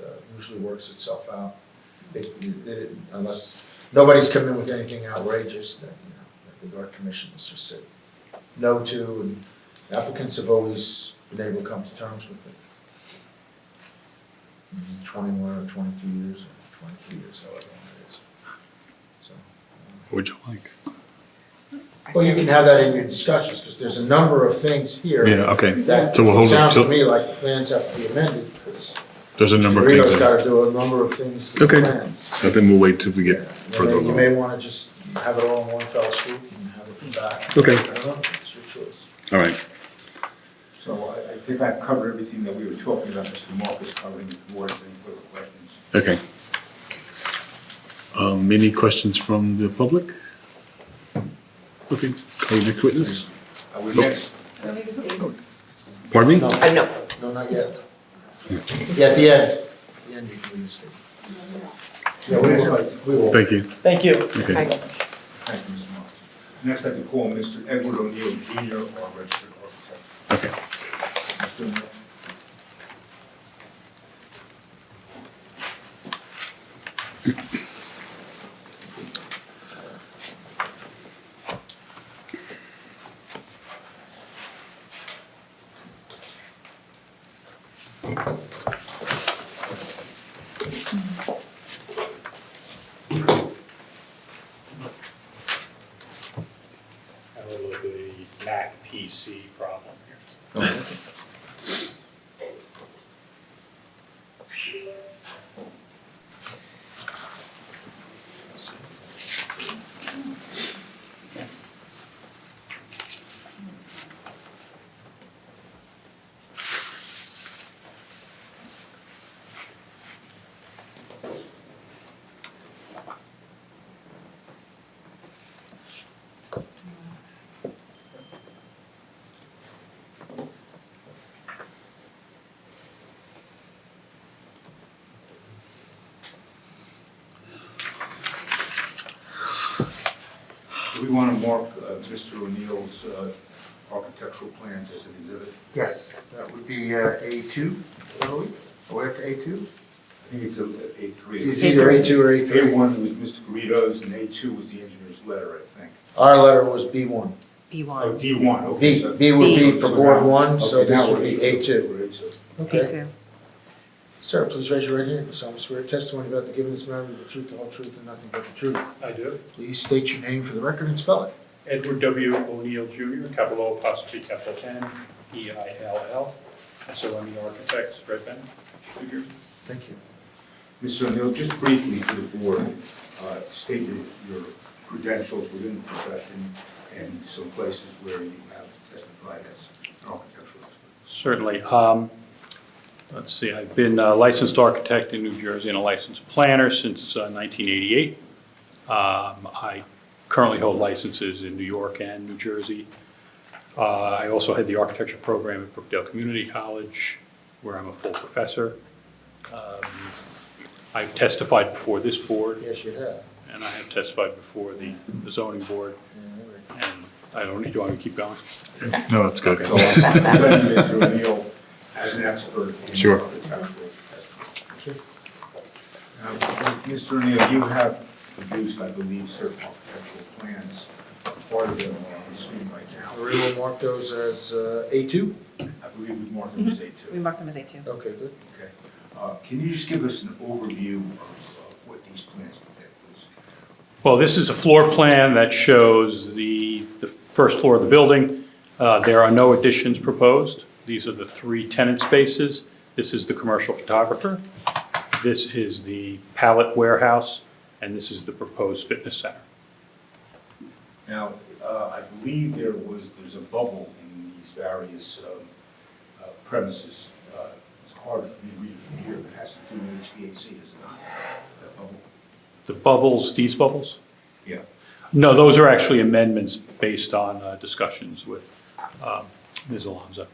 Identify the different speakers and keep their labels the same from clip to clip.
Speaker 1: uh, usually works itself out. It- it- Unless, nobody's come in with anything outrageous that, you know, that the art commission has just said no to, and applicants have always been able to come to terms with it. Mhm, Twenty-one or twenty-two years, or twenty-three years, however long it is, so.
Speaker 2: Would you like?
Speaker 1: Well, you can have that in your discussions, because there's a number of things here.
Speaker 2: Yeah, okay.
Speaker 1: That
Speaker 2: So we'll hold it
Speaker 1: sounds to
Speaker 2: till-
Speaker 1: me like the plans have to be amended, because
Speaker 2: There's a number of things.
Speaker 1: Rio's
Speaker 2: that-
Speaker 1: gotta do a number of things to the
Speaker 2: Okay.
Speaker 1: plans.
Speaker 2: I think we'll wait till we
Speaker 1: Yeah,
Speaker 2: get
Speaker 1: and then
Speaker 2: further
Speaker 1: You
Speaker 2: along.
Speaker 1: may wanna just have it all in one fell swoop and have it back.
Speaker 2: Okay.
Speaker 1: I don't know, it's your choice.
Speaker 2: All right.
Speaker 3: So I, I think I've covered everything that we were talking about, Mr. Marcus covering the board, any further questions?
Speaker 2: Okay. Um, any questions from the public? Okay, call your next witness.
Speaker 3: I would next,
Speaker 2: Pardon me?
Speaker 1: No, no, not yet. Yeah, at the end, the end you can use it. Yeah, we will, we will.
Speaker 2: Thank you.
Speaker 4: Thank you.
Speaker 2: Okay.
Speaker 3: thank you, Mr. Marcus. Next, I'd like to call Mr. Edward O'Neill Jr., our registered architect.
Speaker 2: Okay.
Speaker 3: Mr. O'Neill.
Speaker 5: have a look at the Mac PC problem here.
Speaker 3: Do we want to mark uh, Mr. O'Neill's uh, architectural plans as an exhibit?
Speaker 1: Yes, that would be uh, A two, early, or after A two?
Speaker 3: I think it's a A three.
Speaker 1: It's either A two or A
Speaker 3: A
Speaker 1: three.
Speaker 3: one was Mr. Garrido's, and A two was the engineer's letter, I think.
Speaker 1: Our letter was B one.
Speaker 3: Oh,
Speaker 6: B1.
Speaker 3: D one, okay.
Speaker 1: B,
Speaker 3: so-
Speaker 1: B would be
Speaker 6: B.
Speaker 1: for
Speaker 3: so
Speaker 1: Board
Speaker 3: now-
Speaker 1: One, so
Speaker 3: okay,
Speaker 1: this
Speaker 3: now
Speaker 1: would
Speaker 3: we're
Speaker 1: be A two.
Speaker 3: We're A two.
Speaker 1: Okay.
Speaker 6: B2.
Speaker 1: Sir, please raise your right hand. You solemnly swear testimony about the giving this matter the truth, the whole truth, and nothing but the truth.
Speaker 5: I do.
Speaker 1: Please state your name for the record and spell it.
Speaker 5: Edward W. O'Neill Jr., capital O apostrophe capital N, E I L L, S O M E Architects, Red Bank, New Jersey.
Speaker 1: Thank you.
Speaker 3: Mr. O'Neill, just briefly for the board, uh, state your your credentials within the profession and some places where you have testified as an architectural expert.
Speaker 5: Certainly. Um, Let's see, I've been a licensed architect in New Jersey and a licensed planner since uh, 1988. Um, I currently hold licenses in New York and New Jersey. Uh, I also had the architecture program at Brookdale Community College, where I'm a full professor. Um, I've testified before this board,
Speaker 1: Yes, you have.
Speaker 5: and I have testified before the the zoning board,
Speaker 1: Yeah,
Speaker 5: and I don't need, do I keep going?
Speaker 2: No, that's good.
Speaker 3: So I'm presenting Mr. O'Neill as an expert in
Speaker 2: Sure.
Speaker 3: architectural testimony.
Speaker 1: Sure.
Speaker 3: Now, Mr. O'Neill, you have produced, I believe, certain architectural plans. Part of them are on the screen right now.
Speaker 1: We will mark those as uh, A two.
Speaker 3: I believe we marked them as A
Speaker 6: We
Speaker 3: two.
Speaker 6: marked them as A2.
Speaker 1: Okay, good.
Speaker 3: Okay. Uh, Can you just give us an overview of uh, what these plans depict, please?
Speaker 5: Well, this is a floor plan that shows the, the first floor of the building. Uh, There are no additions proposed. These are the three tenant spaces. This is the commercial photographer. This is the pallet warehouse, and this is the proposed fitness center.
Speaker 3: Now, uh, I believe there was, there's a bubble in these various um, uh, premises. Uh, It's hard for me to read it from here, but it has to do with HVAC, is it not? That bubble?
Speaker 5: The bubbles, these bubbles?
Speaker 3: Yeah.
Speaker 5: No, those are actually amendments based on uh, discussions with um, Ms. Alonso.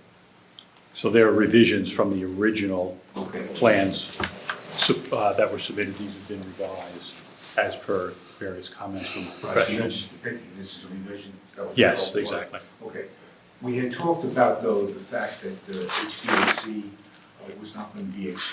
Speaker 5: So they're revisions from the original
Speaker 3: Okay.
Speaker 5: plans sub- uh, that were submitted. These have been revised as per various comments from
Speaker 3: Right, so you're
Speaker 5: professionals.
Speaker 3: just depicting this is a revision? is that what you're
Speaker 5: Yes,
Speaker 3: talking about?
Speaker 5: exactly.
Speaker 3: Okay. We had talked about, though, the fact that uh, HVAC uh, was not going to be excluded